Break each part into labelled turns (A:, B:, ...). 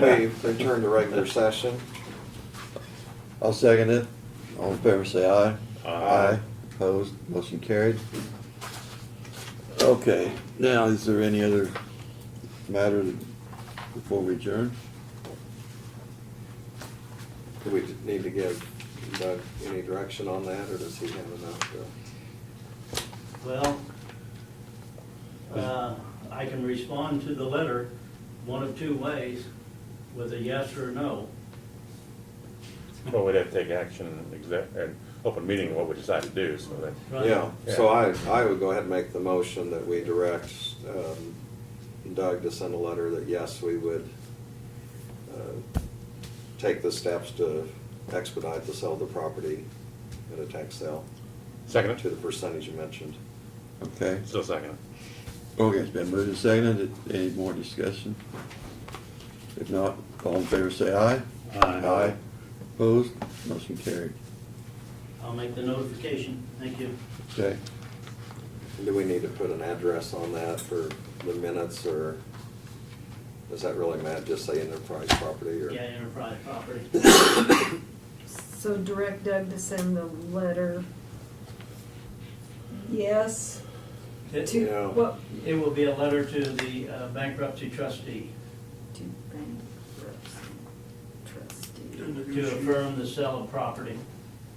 A: we return to regular session.
B: I'll second it. All in favor, say aye.
C: Aye.
B: Opposed, motion carried. Okay, now, is there any other matter before we adjourn?
A: Do we need to give Doug any direction on that, or does he have enough to?
D: Well, uh, I can respond to the letter one of two ways, with a yes or a no.
C: Well, we'd have to take action in exec, and open meeting, on what we decide to do, so that,
D: right?
A: Yeah, so I, I would go ahead and make the motion that we direct um, Doug to send a letter that, yes, we would uh, take the steps to expedite the sale of the property at a tax sale
C: second
A: to
C: it?
A: the percentage you mentioned.
B: Okay,
C: Still second it.
B: okay, it's been moved and seconded. Any more discussion? If not, all in favor, say aye.
C: Aye.
B: Opposed, motion carried.
D: I'll make the notification, thank you.
B: Okay,
A: Do we need to put an address on that for the minutes, or does that really matter, just say enterprise property, or?
D: Yeah, Enterprise Property.
E: So direct Doug to send the letter. Yes,
D: It
E: to,
A: Yeah.
E: what,
D: it will be a letter to the uh, bankruptcy trustee
E: to bankruptcy trustee
D: to affirm the sale of property,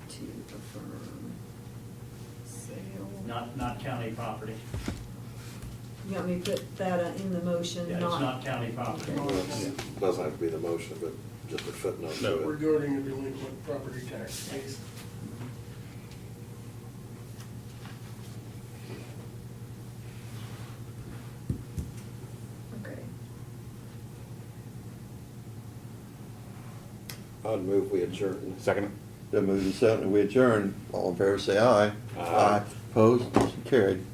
E: to affirm sale.
D: not, not county property.
E: You want me to put that uh, in the motion,
D: Yeah, It's not county property.
A: Well, it's- Doesn't have to be the motion, but just a footnote to it.
F: regarding a delinquent property tax case.
E: Okay,
A: I'd move we adjourn.
C: Second it?
B: then moved and seconded. We adjourn. All in favor, say aye.
A: Aye.
B: Opposed, motion carried.